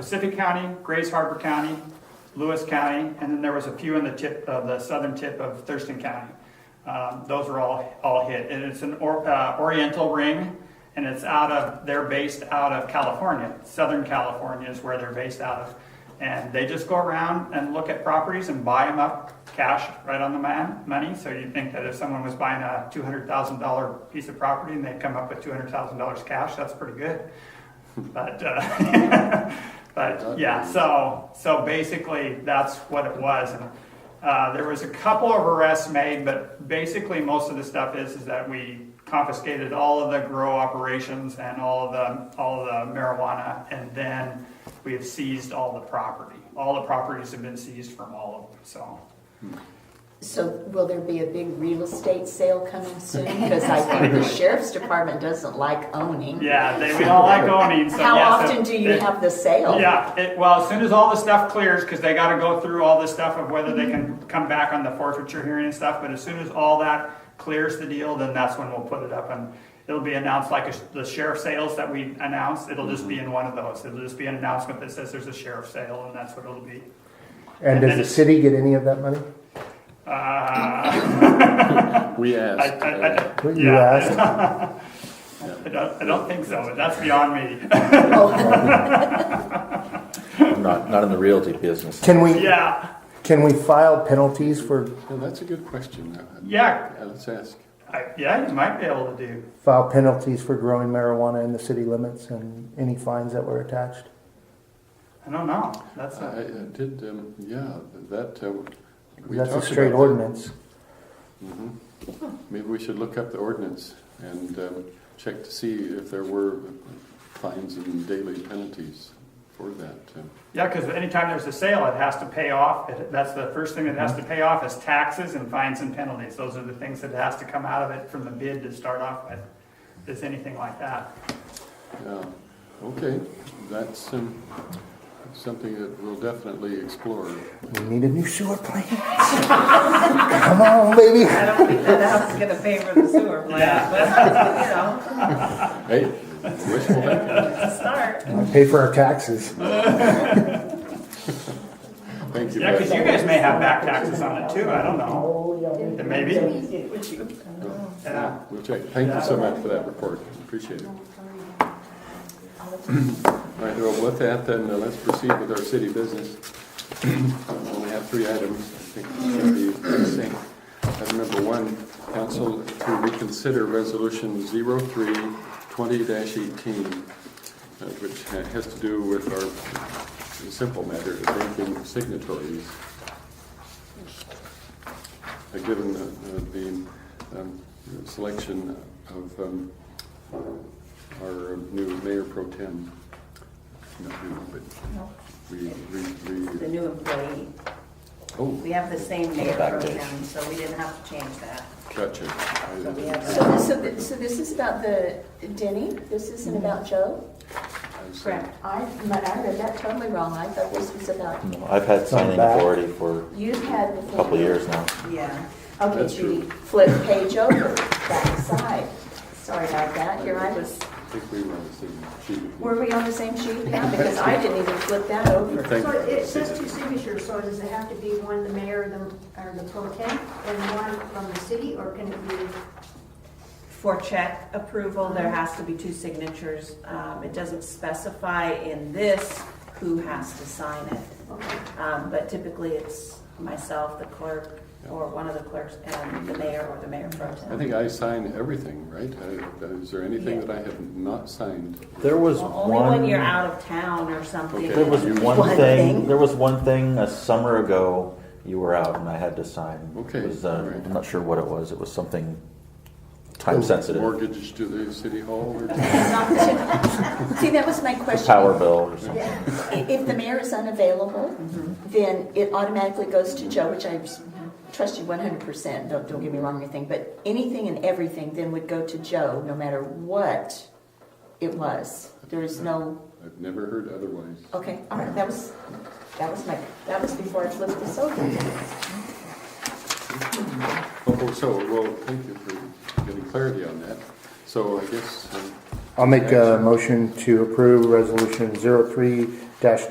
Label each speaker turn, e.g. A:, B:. A: Pacific County, Grays Harbor County, Lewis County, and then there was a few in the tip, of the southern tip of Thurston County. Um, Those were all, all hit. And it's an or- uh, Oriental ring, and it's out of, they're based out of California. Southern California is where they're based out of. And they just go around and look at properties and buy them up cash right on the man, money. So you'd think that if someone was buying a $200,000 piece of property and they come up with $200,000 cash, that's pretty good. But, uh, but yeah, so, so basically, that's what it was. And uh, There was a couple of arrests made, but basically, most of the stuff is, is that we confiscated all of the grow operations and all of the, all of the marijuana, and then we have seized all the property. All the properties have been seized from all of them, so.
B: So will there be a big real estate sale coming soon? Because I think the sheriff's department doesn't like owning.
A: Yeah, they, we all like owning, so.
B: How
A: yes,
B: often
A: it-
B: do you
A: it-
B: have the sale?
A: Yeah, it, well, as soon as all the stuff clears, because they gotta go through all this stuff of whether they can come back on the forfeiture hearing and stuff, but as soon as all that clears the deal, then that's when we'll put it up and it'll be announced like a sh- the sheriff sales that we announced, it'll just be in one of those. It'll just be an announcement that says there's a sheriff sale and that's what it'll be.
C: And does the city get any of that money?
A: Uh,
D: We
A: I,
D: asked.
A: I,
D: uh,
A: I,
C: What you
A: yeah,
C: asked?
A: I don't, I don't think so, but that's beyond me.
E: I'm not, not in the realty business.
C: Can we,
A: Yeah,
C: can we file penalties for,
D: Well, that's a good question. Uh,
A: yeah,
D: yeah, Let's ask.
A: I, yeah, you might be able to do.
C: file penalties for growing marijuana in the city limits and any fines that were attached?
A: I don't know, that's
D: I
A: a.
D: I did, um, yeah, that, uh, we
C: That's a
D: talked
C: straight
D: about that.
C: ordinance.
D: Maybe we should look up the ordinance and um, check to see if there were fines and daily penalties for that. um,
A: Yeah, because anytime there's a sale, it has to pay off, It- that's the first thing it has to pay off is taxes and fines and penalties. Those are the things that has to come out of it from the bid to start off with, is anything like that.
D: Yeah, okay, that's um, something that we'll definitely explore.
C: We need a new sewer plant. Come on, baby.
F: I don't think that house is gonna pay for the sewer
A: Yeah.
F: plant, but, you know,
D: Hey, wishful thinking.
F: it's a start.
C: Pay for our taxes.
D: Thank you.
A: Yeah, because
D: Beth.
A: you guys may have back taxes on it too, I don't know. Maybe, yeah.
D: We'll check. Thank you so much for that report. Appreciate it. All right, well, with that, then, uh, let's proceed with our city business. We Only have three items. I think it's gonna be succinct. Item number one, council to reconsider resolution 03-20-18, uh, which ha- has to do with our simple matter of banking signatories. Uh, Given the- uh, the um, selection of um, our new mayor pro tem, not new, but we, we,
G: The
D: we,
G: new employee.
D: oh,
G: We have the same mayor pro tem, so we didn't have to change that.
D: gotcha. I-
G: So we have
B: So this, so this- so this is about the Denny? This isn't about Joe?
D: I see.
G: Correct.
B: Mm-hmm. I, I read that totally wrong. I thought this was about,
E: No, I've had signing
C: back.
E: authority for
B: you've had
E: a
B: before.
E: couple of years now.
G: Yeah.
B: Okay,
D: That's
B: Judy,
D: true.
B: flip page over, back side. Sorry about that. Here I was,
D: I think we were on the same sheet.
B: were we on the same sheet? Yeah, because I didn't even flip that over.
D: Thank
H: So
D: you.
H: it says two signatures, so does it have to be one the mayor, the, or the pro temp, and one from the city, or can it be?
F: For check approval, there has to be two signatures. Um, it doesn't specify in this who has to sign it.
H: okay.
F: Um, but typically it's myself, the clerk, or one of the clerks, and the mayor or the mayor pro
D: I
F: tem.
D: think I sign everything, right? I- Is there anything
F: Yeah.
D: that I have not signed?
E: There was
F: Well, Only when you're
E: one,
F: out of town or something.
E: there was
B: One
E: one
B: thing.
E: thing, there was one thing a summer ago, you were out and I had to sign.
D: Okay,
E: It was, uh,
D: all right.
E: I'm not sure what it was, it was something time sensitive,
D: Mortgage to the city hall or?
B: See, that was my
E: the
B: question.
E: power bill or something.
B: I- If the mayor is unavailable,
E: Mm-hmm.
B: then it automatically goes to Joe, which I trust you one hundred percent, don't, don't get me wrong or anything, but anything and everything then would go to Joe, no matter what it was. There is no,
D: I've never heard otherwise.
B: okay, all right, that was, that was my, that was before I flipped this over.
D: Oh, So, well, thank you for getting clarity on that. So I guess um,
C: I'll make a motion to approve resolution 03 dash